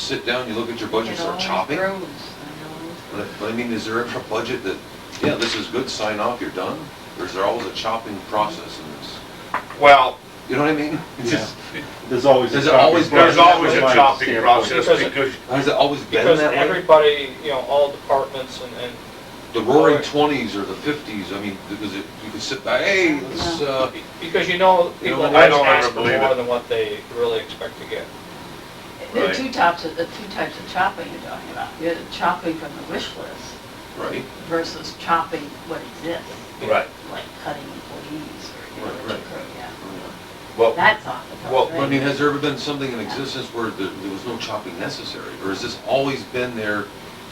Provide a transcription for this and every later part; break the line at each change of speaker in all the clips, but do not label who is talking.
sit down, you look at your budget,
It all
start chopping?
grows,
But I mean, is there ever a budget that, yeah, this is good, sign off, you're done? Or is there always a chopping process in this?
Well,
You know what I mean? It's just-
There's always. a
There's
chopping
always-
process
there's always a
from my
chopping
standpoint.
process
Because-
because
Has it always been
Because
that way?
everybody, you know, all departments and, and
The roaring twenties or the fifties, I mean, because it, you could sit back, hey, let's, uh,
Because you know,
You
people
know,
I
always
don't
ask
ever
for
believe
more
it.
than what they really expect to get.
There are
Right.
two types of, the two types of chopping you're talking about. You're the chopping from the wish list
right?
versus chopping what exists,
Right.
like cutting employees or, you know,
Right, right.
whatever, yeah.
Well,
That's off the
well,
top,
But I
right?
mean, has there ever been something in existence where there, there was no chopping necessary? Or has this always been there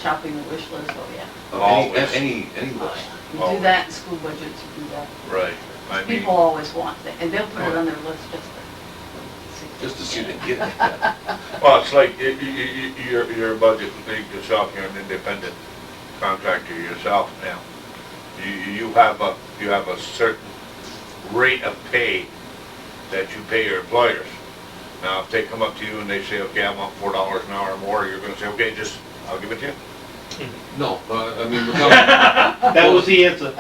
Chopping the wish list, oh yeah.
of any,
Always.
any, any
Oh,
list?
yeah. You do that in school budgets, you do that.
Right, I mean,
People always want that, and they'll put it on their list just to.
Just to see the get it.
well, it's like, you, you, you, your, your budget, you think yourself, you're an independent contractor yourself now. You, you have a, you have a certain rate of pay that you pay your employers. Now, if they come up to you and they say, okay, I want four dollars an hour more, you're gonna say, okay, just, I'll give it to you.
No, uh, I mean, without,
That was the answer.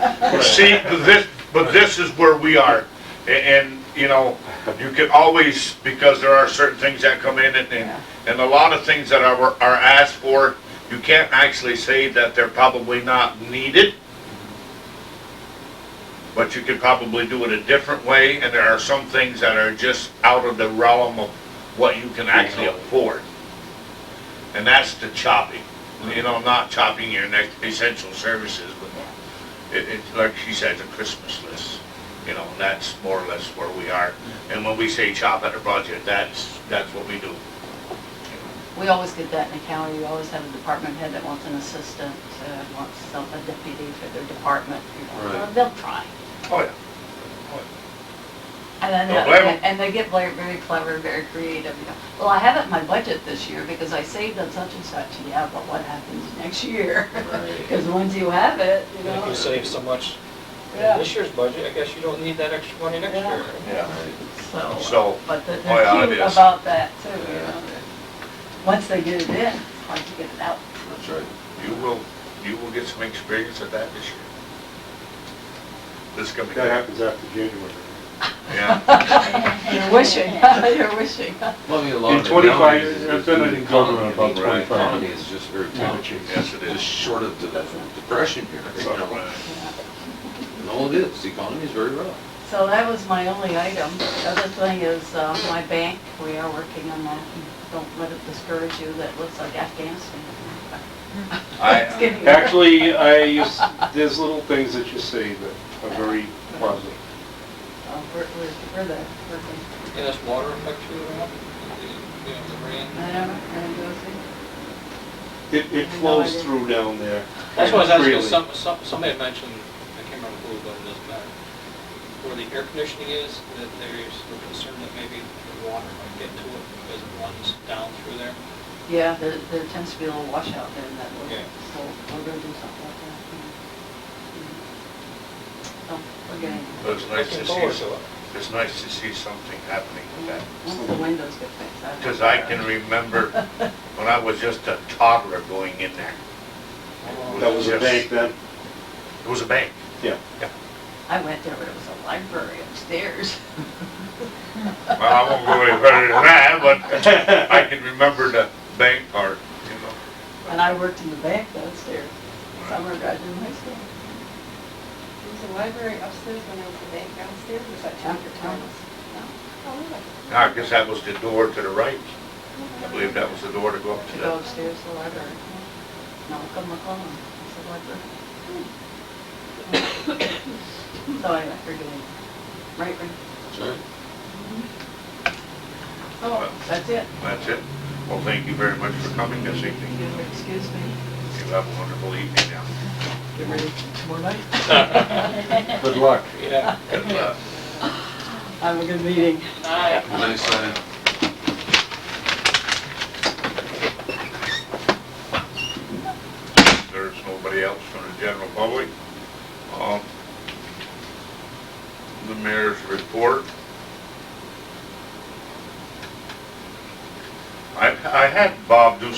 See, but this, but this is where we are, A- and, you know, you can always, because there are certain things that come in and- and, and a lot of things that are, are asked for, you can't actually say that they're probably not needed. But you could probably do it a different way, and there are some things that are just out of the realm of what you can actually afford. And that's the chopping, you know, not chopping your next essential services, but it, it's like she said, a Christmas list, you know, and that's more or less where we are. And when we say chop at a budget, that's, that's what we do.
We always get that in the county, we always have a department head that wants an assistant, uh, wants some, a deputy for their department, you know,
Right.
Well, they'll try.
Oh, yeah.
And then,
Don't blame 'em.
and they get very, very clever, very creative, you know, well, I haven't my budget this year because I saved on such and such, yeah, but what happens next year? Because once you have it, you
And If
know,
you save so much in
Yeah.
this year's budget, I guess you don't need that extra money next
Yeah.
year.
Yeah.
so, uh,
So,
but they're
oh, yeah,
they're
it
cute
is.
about that too, you know. Once they get it in, it's hard to get it out.
that's right.
You will, you will get some experience at that this year. This is gonna be
That
good.
happens after January.
Yeah,
You're wishing, you're wishing.
Well, I mean, a lot
In
of it
25
now is- is
I've
due
done
to
it in
economy. I
Colorado about
mean,
25
Economy is just very
Kind of
tough.
changes.
yes it
Just
is.
short of the depression here, you
So,
know?
uh,
No, it is, the economy is very rough.
So that was my only item. The other thing is uh, my bank, we are working on that. Don't let it discourage you, that looks like Afghanistan. It's
I,
getting worse.
Actually, I, use- there's little things that you say that are very positive.
Uh, We're, we're, we're there, working.
And this water affect you at all? You know, the rain?
I don't know, I don't know, see?
It, it flows through down there.
That's what I was asking,
freely.
some, some, somebody had mentioned, I can't remember who, but it doesn't matter, where the air conditioning is, that there's a concern that maybe the water might get to it because it runs down through there.
Yeah, there, there tends to be a little washout there in that little,
Yeah.
so we're gonna do something like that. yeah. Mm. Oh, we're getting,
but it's nice to
Looking forward
see,
to it.
it's nice to see something happening with that.
once the windows get fixed, I don't know.
Because I can remember when I was just a toddler going in there.
Um,
That was a
Yes.
bank then,
It was a bank.
yeah.
I went there, but it was a library upstairs.
Well, I won't go any further than that, but I can remember the bank part, you know.
And I worked in the bank downstairs, summer graduate high school.
Was the library upstairs when there was the bank downstairs, or was that chapter Thomas? Oh, really?
I guess that was the door to the right. I believe that was the door to go up
To
to
go
the,
upstairs to the library. Malcolm McClellan, it's the library. So anyway, we're doing, right, right?
That's right.
Oh, that's it.
that's it. Well, thank you very much for coming this evening.
You excuse me,
You have a wonderful evening now.
get ready for tomorrow night.
Good luck.
Yeah.
Good luck.
Have a good meeting.
Nice, uh,
There's nobody else from the general public. Um, The mayor's report. I, I had Bob do